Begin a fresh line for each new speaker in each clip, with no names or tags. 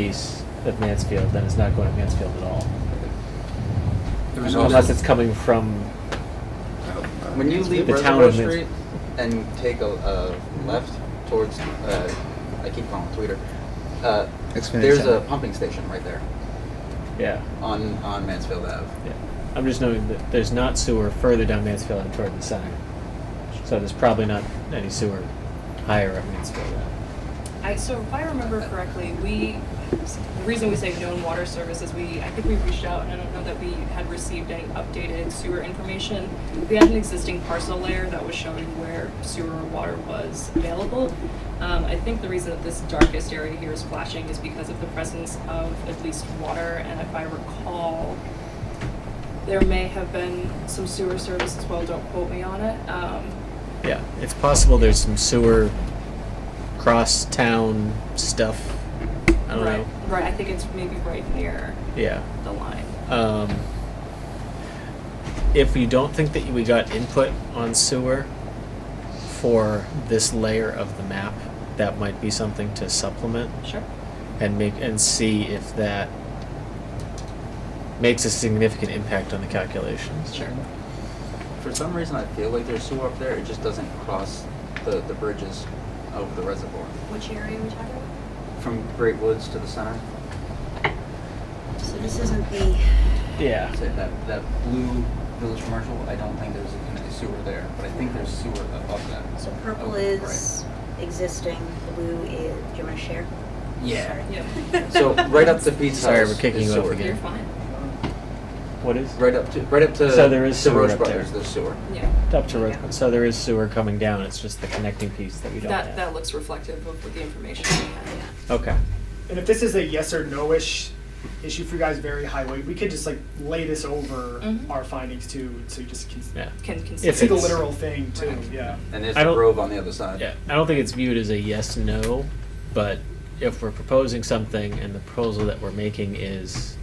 piece of Mansfield, then it's not going to Mansfield at all.
There was
Unless
also-
it's coming from,
When you leave
The town
Reservoir
of Mins-
Street and take a, a left towards, uh, I keep calling it Tweeter, uh,
Xfinity
there's
Center.
a pumping station right there
yeah,
on, on Mansfield Ave.
yeah. I'm just noting that there's not sewer further down Mansfield and toward the center. So there's probably not any sewer higher up Mansfield.
I, so if I remember correctly, we, the reason we say known water service is we, I think we reached out and I don't know that we had received any updated sewer information. We had an existing parcel layer that was showing where sewer or water was available. Um, I think the reason that this darkest area here is flashing is because of the presence of at least water and if I recall, there may have been some sewer service as well, don't quote me on it. Um,
Yeah, it's possible there's some sewer cross-town stuff. I don't
right,
know.
Right, I think it's maybe right near
Yeah.
the line.
Um, if you don't think that we got input on sewer for this layer of the map, that might be something to supplement
Sure.
and make and see if that makes a significant impact on the calculations.
Sure.
For some reason, I feel like there's sewer up there, it just doesn't cross the, the bridges over the reservoir.
Which area are we talking about?
From Great Woods to the center,
So this isn't the,
Yeah.
so that, that blue village commercial, I don't think there's gonna be sewer there, but I think there's sewer above that.
so purple
Oh,
is existing, blue is, do you wanna share?
Yeah.
Yeah.
So right up to Pete's
Sorry,
house
we're kicking
is
you off
sewer.
again.
You're fine.
What is
Right up to, right up to.
So there is
to
sewer
Roche
up there.
Brothers, There's sewer.
Yeah.
up to road? So there is sewer coming down. It's just the connecting piece that we don't
That,
have.
that looks reflective of what the information we had.
okay.
And if this is a yes or no-ish issue for you guys, very highway, we could just like lay this over
Mhm.
our findings too, so you just can
Yeah.
Can
If
see
consider.
the
it's-
literal thing too.
Right.
Yeah.
And there's
I
the
don't-
grove on the other side.
Yeah, I don't think it's viewed as a yes no, but if we're proposing something and the proposal that we're making is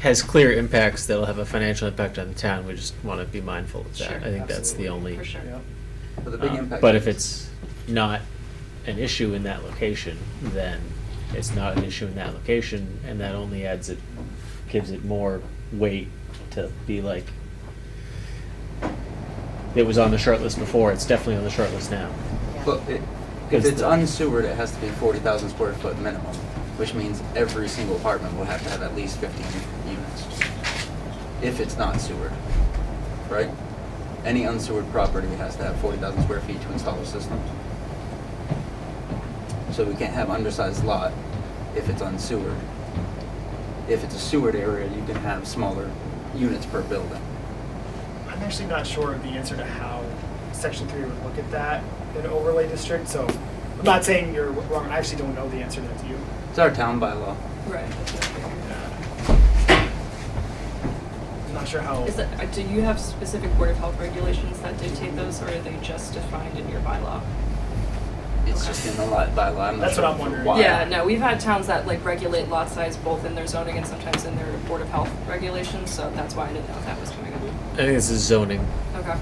has clear impacts that'll have a financial impact on the town, we just want to be mindful of that.
Sure,
I think that's the
absolutely,
only.
For sure.
Yeah.
But the big
um,
impact.
But if it's not an issue in that location, then it's not an issue in that location, and that only adds it, gives it more weight to be like, it was on the short list before, it's definitely on the short list now.
Yeah.
But it,
It's
if it's
the-
unsewered, it has to be forty thousand square foot minimum, which means every single apartment will have to have at least fifteen units. If it's not sewered, right? Any unsewered property has to have forty thousand square feet to install a system. So we can't have undersized lot if it's unsewered. If it's a sewered area, you can have smaller units per building.
I'm actually not sure of the answer to how section three would look at that in overlay district, so I'm not saying you're wrong, I actually don't know the answer to that, do you?
It's our town bylaw.
Right. that's what I figured.
I'm not sure how.
Is that, uh, do you have specific Board of Health regulations that dictate those, or are they just defined in your bylaw?
It's just in the lot bylaw. I'm not
That's
sure
what I'm wondering.
why.
Yeah, no, we've had towns that like regulate lot size both in their zoning and sometimes in their Board of Health regulations, so that's why I didn't know if that was coming
I
up.
think this is zoning.
Okay.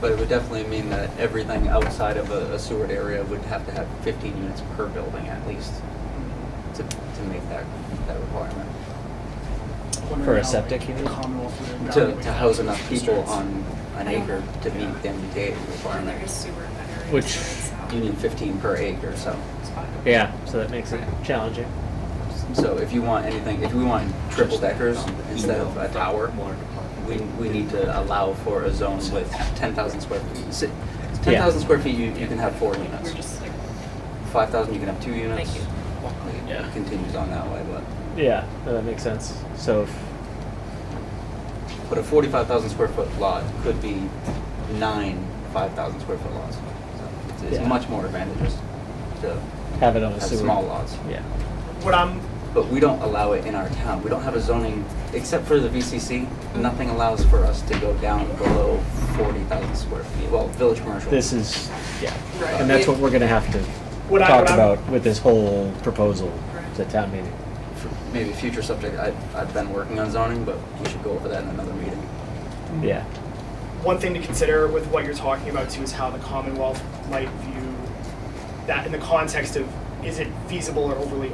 But it would definitely mean that everything outside of a, a sewered area would have to have fifteen units per building at least to, to make that, that requirement.
Wondering
For a
how, like,
septic, you
the
mean?
Commonwealth would
To,
evaluate
to house
those
enough people
districts.
on an acre to meet the MBTA
And there is
requirement.
sewer in that area. so
Which-
it's, um,
You need fifteen per acre, so,
it's fine.
Yeah, so that makes it challenging.
so if you want anything, if we want triple deckers instead of a tower, we, we need to allow for a zone with ten thousand square feet. Si- Ten thousand square feet, you, you can have four
We're
units.
just like,
Five thousand, you can have two units.
Thank you.
Yeah.
It continues on that way, but.
Yeah, no, that makes sense. So, if-
But a forty-five thousand square foot lot could be nine five thousand square foot lots. So it's, it's
Yeah.
much more advantageous to
have it on a
have
sewer.
small lots.
Yeah,
What I'm,
But we don't allow it in our town. We don't have a zoning, except for the VCC.
Mm-hmm.
Nothing allows for us to go down below forty thousand square feet. Well, village commercial.
this is, yeah.
Right.
And that's what we're gonna have to
What I-
talk
what I'm-
about with this whole proposal
Right.
to town meeting.
For maybe a future subject. I, I've been working on zoning, but we should go over that in another meeting.
Yeah,
one thing to consider with what you're talking about too is how the Commonwealth might view that in the context of is it feasible or overly